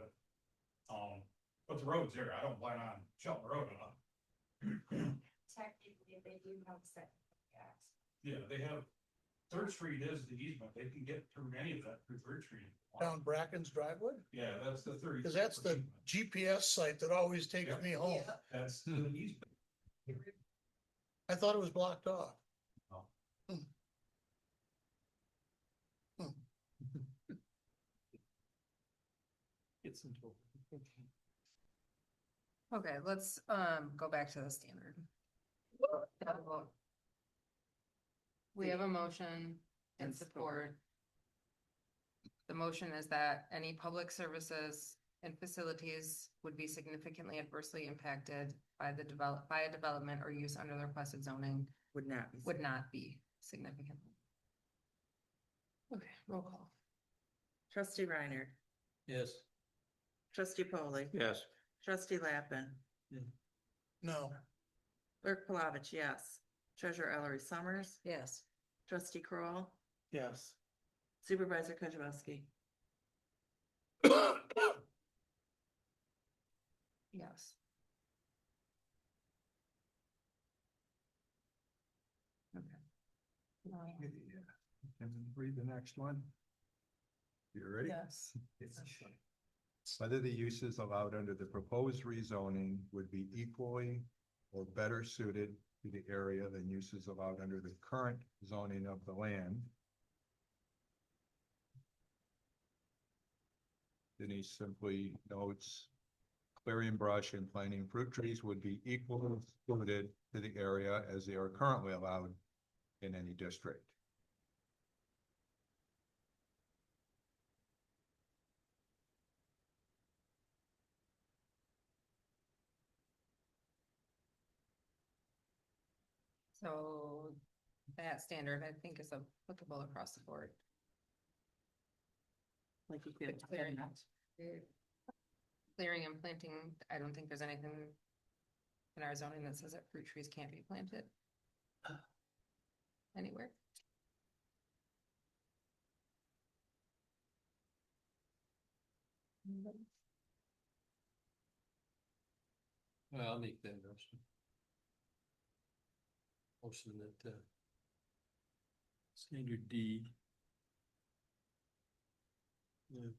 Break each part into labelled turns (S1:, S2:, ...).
S1: those Um, roads there, I don't plan on shutting the road off.
S2: technically, they do have set.
S1: Yeah, they have, Third Street is the easement, they can get through any of that through Third Street.
S3: down Bracken's driveway?
S1: Yeah, that's the thirty.
S3: Cause that's the GPS site that always takes me home.
S1: That's the easement.
S3: I thought it was blocked off.
S4: It's until.
S5: Okay, let's, um, go back to the standard. We have a motion and
S4: And
S5: support. The motion is that any public services and facilities would be significantly adversely impacted by the develop, by a development or use under the requested zoning
S4: Would not be.
S5: would not be significant. Okay, roll call.
S6: Trustee Reiner.
S4: Yes.
S6: Trustee Polly.
S4: Yes.
S6: Trustee Lappin.
S3: No,
S6: Clerk Palovich, yes. Treasurer Ellery Summers.
S5: Yes.
S6: Trustee Kroll,
S4: Yes.
S6: Supervisor Kujabaski.
S5: Yes. Okay. Um,
S1: And then read the next one.
S7: You ready?
S5: Yes.
S7: Whether the uses allowed under the proposed rezoning would be equally or better suited to the area than uses allowed under the current zoning of the land. Denise simply notes clearing brush and planting fruit trees would be equally suited to the area as they are currently allowed in any district.
S5: So that standard, I think, is applicable across the board.
S6: Like you
S5: But clearing- Clearing and planting, I don't think there's anything in our zoning that says that fruit trees can't be planted. Anywhere. Anybody?
S4: Well, I'll make that motion. Motion that, uh. Standard D. Yeah,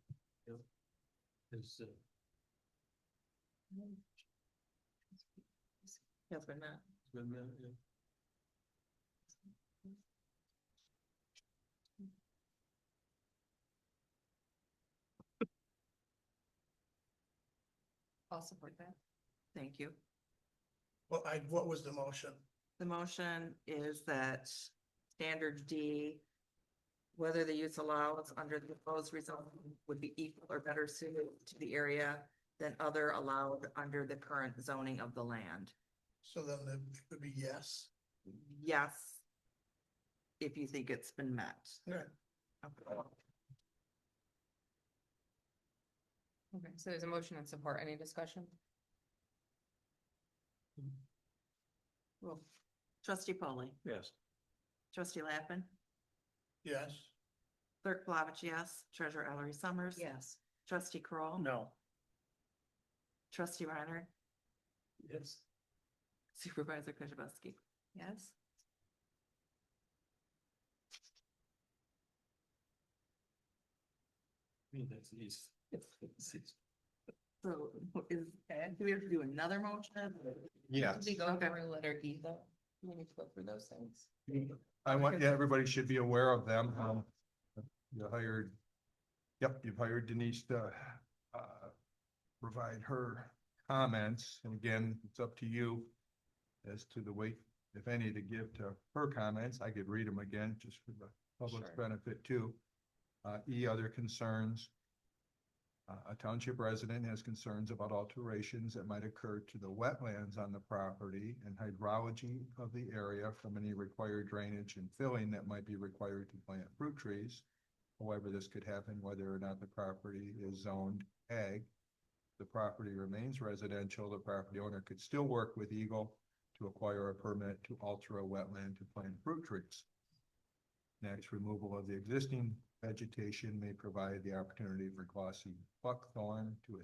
S4: yeah. Is, uh,
S6: Yes, we're not.
S4: been that, yeah.
S5: I'll support that.
S6: Thank you.
S3: well, I, what was the motion?
S6: The motion is that standard D, whether the use allows under the proposed rezoning would be equal or better suited to the area than other allowed under the current zoning of the land.
S3: So then the- it would be yes.
S6: Yes, if you think it's been met.
S3: Yeah.
S6: Okay.
S5: Okay, so there's a motion and support. Any discussion?
S6: Well, Trustee Polly.
S4: Yes.
S6: Trustee Lappin.
S3: Yes.
S6: Clerk Plavich, yes. Treasurer Ellery Summers.
S5: Yes.
S6: Trustee Kroll,
S4: No.
S6: Trustee Reiner.
S4: Yes.
S6: Supervisor Kujabaski.
S5: Yes.
S4: I mean, that's easy.
S6: So is, do we have to do another motion?
S7: Yeah.
S5: Did we go
S6: Okay.
S5: through letter E though? We need to go through those things.
S7: I want, yeah, everybody should be aware of them. Um, You hired, yep, you've hired Denise to uh, provide her comments. And again, it's up to you as to the weight, if any, to give to her comments. I could read them again just for the public's
S5: Sure.
S7: benefit too. Uh, E, other concerns. Uh, A township resident has concerns about alterations that might occur to the wetlands on the property and hydrology of the area from any required drainage and filling that might be required to plant fruit trees. However, this could happen whether or not the property is zoned ag. The property remains residential, the property owner could still work with Eagle to acquire a permit to alter a wetland to plant fruit trees. Next, removal of the existing vegetation may provide the opportunity for glossy buckthorn to